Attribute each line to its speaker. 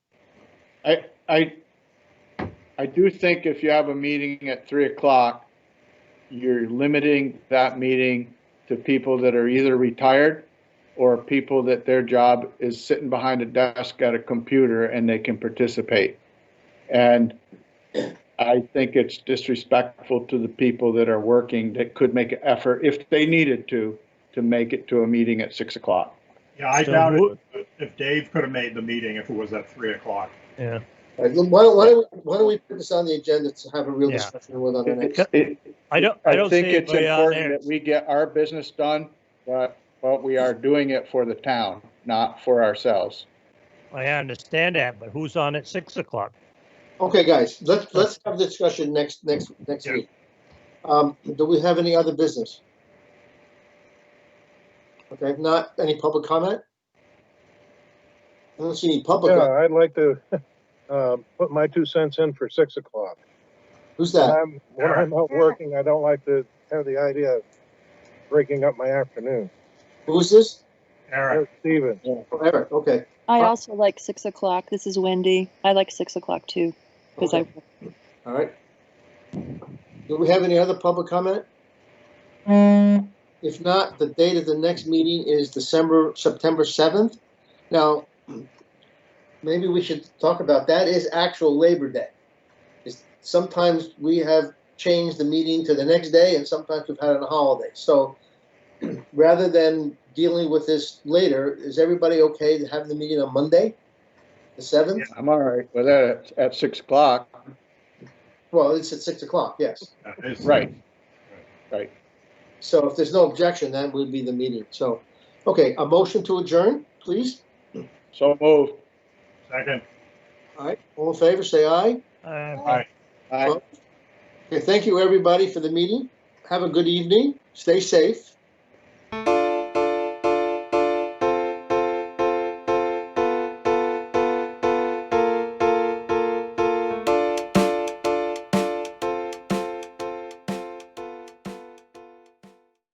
Speaker 1: I, I, I do think if you have a meeting at three o'clock, you're limiting that meeting to people that are either retired or people that their job is sitting behind a desk at a computer and they can participate. And I think it's disrespectful to the people that are working that could make an effort, if they needed to, to make it to a meeting at six o'clock.
Speaker 2: Yeah, I
Speaker 3: So
Speaker 2: doubt
Speaker 3: who-
Speaker 2: it, if- if Dave could have made the meeting if it was at three o'clock.
Speaker 3: Yeah,
Speaker 4: All right, Why don't, why don't, we- why don't we put this on the agenda to have a real
Speaker 3: Yeah.
Speaker 4: discussion with on the next?
Speaker 1: It-
Speaker 3: I don't, I don't see
Speaker 1: think it's
Speaker 3: anybody on
Speaker 1: important
Speaker 3: there.
Speaker 1: that we get our business done, but, but we are doing it for the town, not for ourselves.
Speaker 3: I understand that, but who's on at six o'clock?
Speaker 4: Okay, guys, let's, let's have the discussion next, next, next
Speaker 2: Yeah.
Speaker 4: week. Um, do we have any other business? Okay, if not, any public comment? I don't see any public,
Speaker 5: Yeah, I'd like to uh, put my two cents in for six o'clock.
Speaker 4: who's
Speaker 5: When
Speaker 4: that?
Speaker 5: I'm, when I'm out working, I don't like to have the idea of breaking up my afternoon.
Speaker 4: Who's this?
Speaker 2: Eric,
Speaker 5: There's Steven.
Speaker 4: Oh, Eric, okay.
Speaker 6: I
Speaker 4: Uh,
Speaker 6: also like six o'clock. This is Wendy. I like six o'clock too because
Speaker 4: okay, All right. Do we have any other public comment? If not, the date of the next meeting is December, September 7th. Now, maybe we should talk about, that is actual Labor Day. It's- Sometimes we have changed the meeting to the next day and sometimes we've had it on a holiday. So rather than dealing with this later, is everybody okay to have the meeting on Monday, the 7th?
Speaker 1: I'm all right with that at six o'clock,
Speaker 4: Well, it's at 6 o'clock, yes.
Speaker 2: that is-
Speaker 1: right?
Speaker 4: So if there's no objection, that would be the meeting. So, okay, a motion to adjourn, please.
Speaker 1: So move.
Speaker 2: Second,
Speaker 4: All right, all in favor, say aye.
Speaker 3: Uh,
Speaker 2: aye.
Speaker 1: Aye.
Speaker 4: Okay, thank you, everybody, for the meeting. Have a good evening. Stay safe.